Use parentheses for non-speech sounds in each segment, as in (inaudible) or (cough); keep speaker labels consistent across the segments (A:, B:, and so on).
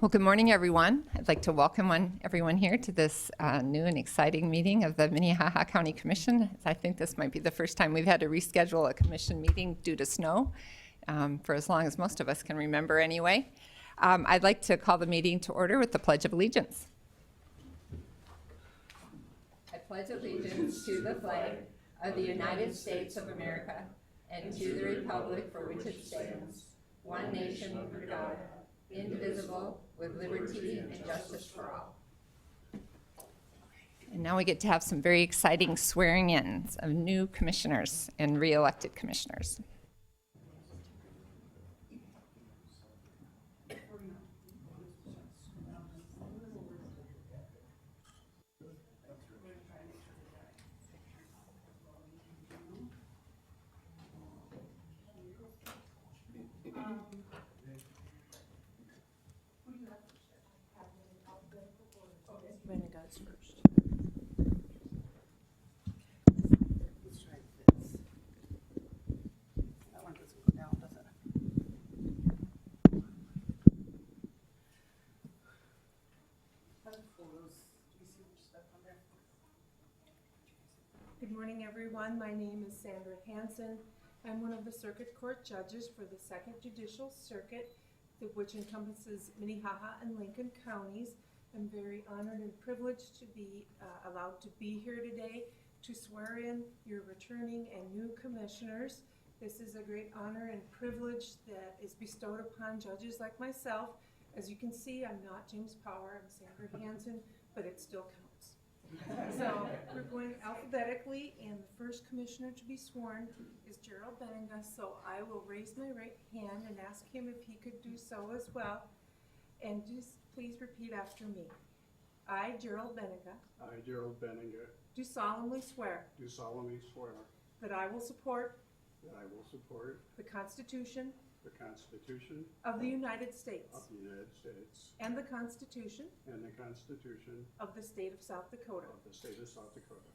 A: Well, good morning, everyone. I'd like to welcome one, everyone here to this uh, new and exciting meeting of the Minnehaha County Commission. I think this might be the first time we've had to reschedule a commission meeting due to snow, um, for as long as most of us can remember anyway. Um, I'd like to call the meeting to order with the Pledge of Allegiance. I pledge allegiance to the flag of the United States of America and to the republic for which it stands, one nation under God, indivisible, with liberty and justice for all. And now we get to have some very exciting swearing-ins of new commissioners and re-elected commissioners.
B: Brenda goes first.
C: Let's try this. That one doesn't go down, does it? How do photos, do you see much stuff on there?
B: Good morning, everyone. My name is Sandra Hansen. I'm one of the Circuit Court Judges for the Second Judicial Circuit, the- which encompasses Minnehaha and Lincoln counties. I'm very honored and privileged to be uh, allowed to be here today to swear in your returning and new commissioners. This is a great honor and privilege that is bestowed upon judges like myself. As you can see, I'm not James Power, I'm Sandra Hansen, but it still counts. So we're going alphabetically, and the first commissioner to be sworn is Gerald Benega, so I will raise my right hand and ask him if he could do so as well. And just please repeat after me. I, Gerald Benega,
D: I, Gerald Benninger,
B: do solemnly swear
D: do solemnly swear
B: that I will support
D: that I will support
B: the Constitution
D: the Constitution
B: of the United States
D: of the United States
B: and the Constitution
D: and the Constitution
B: of the State of South Dakota,
D: of the State of South Dakota,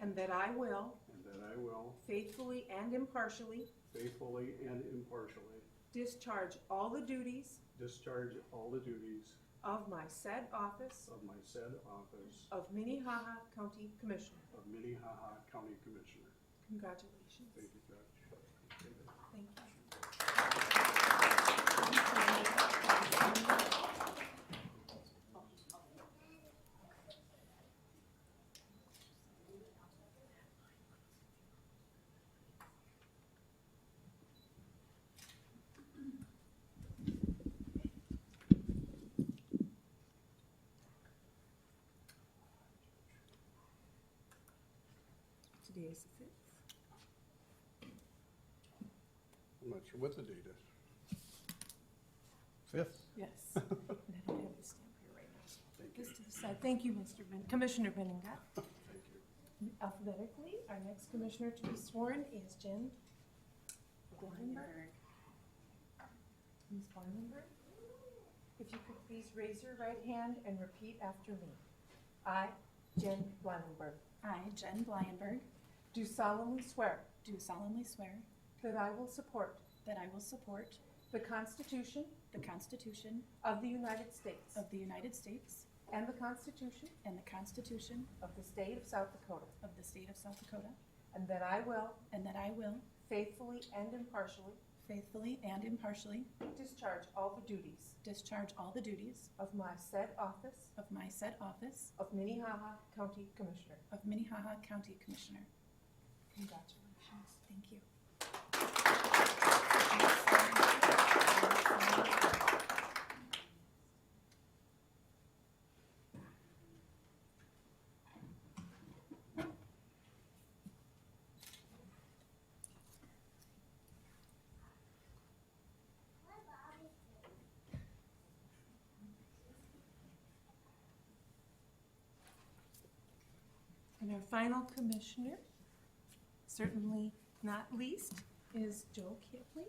B: and that I will
D: and that I will
B: faithfully and impartially
D: faithfully and impartially
B: discharge all the duties
D: discharge all the duties
B: of my said office
D: of my said office
B: of Minnehaha County Commissioner.
D: of Minnehaha County Commissioner.
B: Congratulations.
D: Thank you, Judge.
B: Thank you. Today is the fifth.
D: I'm not sure what the date is. Fifth.
B: Yes. (laughs) And I don't have the stamp here right now. so I'll put This to the side. Thank you, Mr. Ben, Commissioner Benninga.
D: Thank you.
B: Alphabetically, our next commissioner to be sworn is Jen Blumberg. Ms. Blumberg, if you could please raise your right hand and repeat after me. I, Jen Blumberg,
E: I, Jen Blyenberg,
B: do solemnly swear
E: do solemnly swear
B: that I will support
E: that I will support
B: the Constitution
E: the Constitution
B: of the United States
E: of the United States
B: and the Constitution
E: and the Constitution
B: of the State of South Dakota,
E: of the State of South Dakota,
B: and that I will
E: and that I will
B: faithfully and impartially
E: faithfully and impartially
B: discharge all the duties
E: discharge all the duties
B: of my said office
E: of my said office
B: of Minnehaha County Commissioner.
E: of Minnehaha County Commissioner.
B: Congratulations.
E: Thank you.
B: And our final commissioner, certainly not least, is Joe Kipley.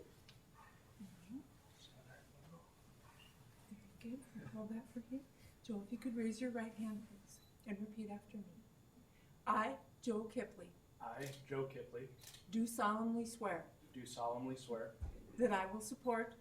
B: Very good, We'll hold that for him. Joe, if you could raise your right hand, please, and repeat after me. I, Joe Kipley,
F: I, Joe Kipley,
B: do solemnly swear
F: do solemnly swear
B: that I will support